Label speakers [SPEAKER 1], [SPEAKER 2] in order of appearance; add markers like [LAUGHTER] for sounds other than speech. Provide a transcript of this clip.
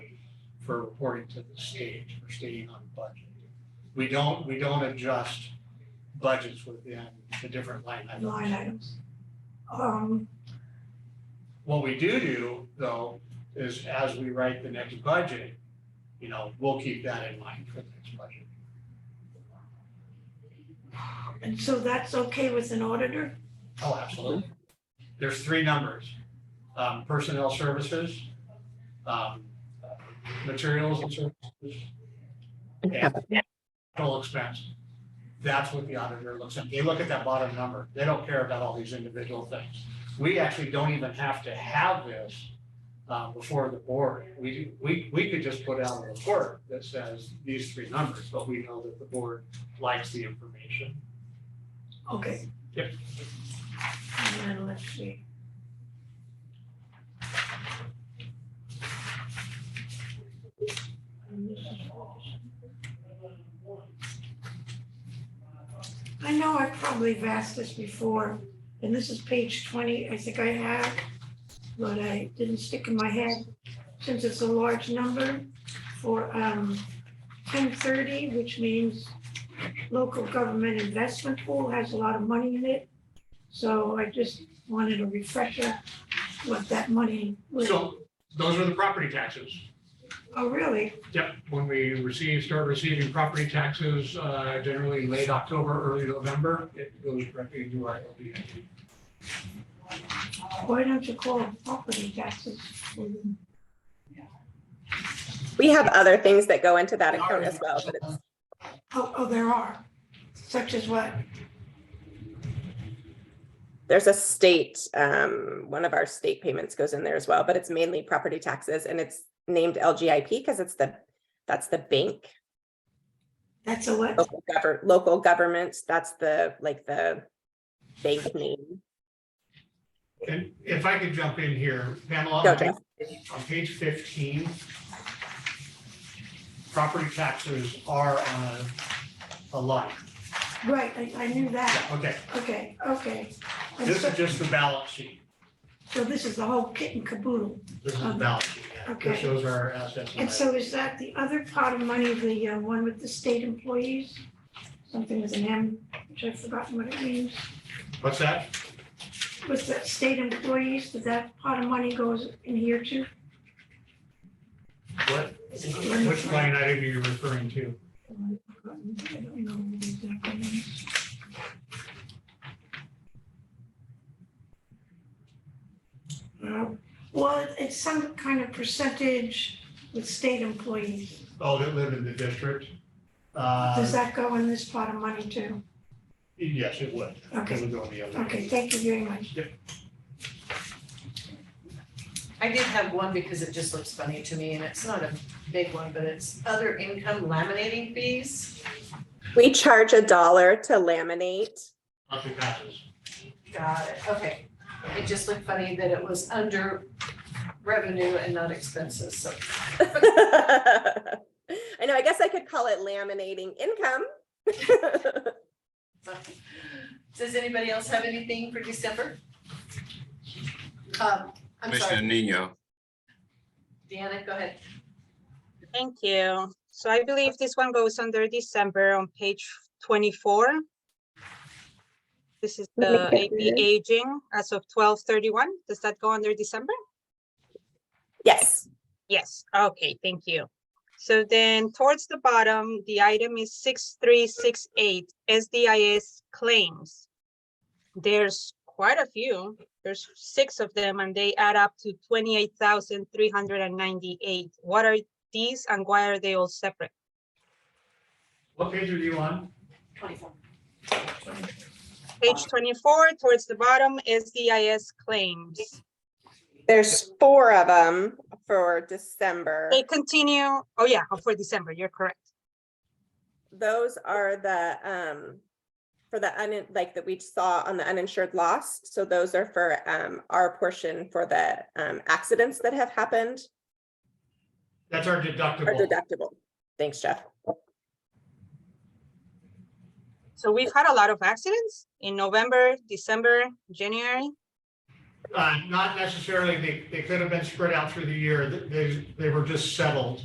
[SPEAKER 1] for reporting to the state, for staying on budget. We don't, we don't adjust budgets within the different line items.
[SPEAKER 2] Line items. Um,
[SPEAKER 1] What we do do, though, is as we write the next budget, you know, we'll keep that in mind for the next budget.
[SPEAKER 2] and so that's okay with an auditor?
[SPEAKER 1] Oh, absolutely. There's three numbers. Um, personnel services, um, materials and services, and total expense. That's what the auditor looks at. They look at that bottom number. They don't care about all these individual things. We actually don't even have to have this uh, before the board. We, we, we could just put out a report that says these three numbers, but we know that the board likes the information.
[SPEAKER 2] Okay.
[SPEAKER 1] Yep.
[SPEAKER 2] And then let's see. I know I probably have asked this before, and this is page twenty, I think I have, but I didn't stick in my head. Since it's a large number for um ten thirty, which means local government investment pool has a lot of money in it. So I just wanted a refresher what that money was.
[SPEAKER 1] So those are the property taxes.
[SPEAKER 2] Oh, really?
[SPEAKER 1] Yep, when we receive, start receiving property taxes, uh, generally late October, early November, it goes directly into our LDA.
[SPEAKER 2] Why don't you call it property taxes? Oh,
[SPEAKER 3] We have other things that go into that account as well, but it's,
[SPEAKER 2] Oh, oh, there are, such as what?
[SPEAKER 3] there's a state, um, one of our state payments goes in there as well, but it's mainly property taxes and it's named LGIP because it's the, that's the bank,
[SPEAKER 2] That's a what?
[SPEAKER 3] local government, local governments, that's the, like the bank name.
[SPEAKER 1] And if I could jump in here, Pamela,
[SPEAKER 3] Go, Jeff.
[SPEAKER 1] on page fifteen, property taxes are on a, a line.
[SPEAKER 2] Right, I, I knew
[SPEAKER 1] Yeah,
[SPEAKER 2] that.
[SPEAKER 1] okay,
[SPEAKER 2] Okay, okay. And
[SPEAKER 1] this
[SPEAKER 2] so-
[SPEAKER 1] is just the balance sheet.
[SPEAKER 2] So this is the whole kit and caboodle.
[SPEAKER 1] This is the balance sheet. yeah. This
[SPEAKER 2] Okay.
[SPEAKER 1] shows our assets.
[SPEAKER 2] And so is that the other pot of money, the uh, one with the state employees? Something with an M, which I've forgotten what it means.
[SPEAKER 1] What's that?
[SPEAKER 2] Was that state employees, did that pot of money goes in here too?
[SPEAKER 1] What, which line item are you referring to?
[SPEAKER 2] I don't know what exactly it is. Uh, Well, it's some kind of percentage with state employees.
[SPEAKER 1] Oh, that live in the district? Uh,
[SPEAKER 2] Does that go in this pot of money too?
[SPEAKER 1] Yes, it would.
[SPEAKER 2] Okay.
[SPEAKER 1] It would go in the other.
[SPEAKER 2] Okay, thank you very much.
[SPEAKER 4] I did have one because it just looks funny to me and it's not a big one, but it's other income laminating fees.
[SPEAKER 3] We charge a dollar to laminate. [LAUGHS]
[SPEAKER 1] Motion passes.
[SPEAKER 4] Got it, okay. It just looked funny that it was under revenue and not expenses, so.
[SPEAKER 3] I know, I guess I could call it laminating income.
[SPEAKER 4] Does anybody else have anything for December? Um, I'm
[SPEAKER 5] Commissioner
[SPEAKER 4] sorry,
[SPEAKER 5] Nino,
[SPEAKER 4] Deanna, go ahead.
[SPEAKER 6] Thank you. So I believe this one goes under December on page twenty-four. This is
[SPEAKER 3] Let me
[SPEAKER 6] the
[SPEAKER 3] get
[SPEAKER 6] AP
[SPEAKER 3] there.
[SPEAKER 6] aging as of twelve thirty-one. Does that go under December?
[SPEAKER 3] [LAUGHS] Yes,
[SPEAKER 6] Yes, okay, thank you. So then towards the bottom, the item is six three six eight SDIS claims. There's quite a few. There's six of them and they add up to twenty-eight thousand three hundred and ninety-eight. What are these and why are they all separate?
[SPEAKER 1] What page are you on?
[SPEAKER 4] Twenty-four.
[SPEAKER 6] Page twenty-four, towards the bottom, SDIS claims.
[SPEAKER 3] there's four of them for December.
[SPEAKER 6] They continue, oh yeah, oh, for December, you're correct.
[SPEAKER 3] Those are the, um, for the, un like that we saw on the uninsured loss. So those are for, um, our portion for the, um, accidents that have happened
[SPEAKER 1] That's our
[SPEAKER 3] or
[SPEAKER 1] deductible.
[SPEAKER 3] deductible. Thanks, Jeff.
[SPEAKER 6] So we've had a lot of accidents in November, December, January.
[SPEAKER 1] Uh, Not necessarily, they, they could have been spread out through the year. They, they were just settled.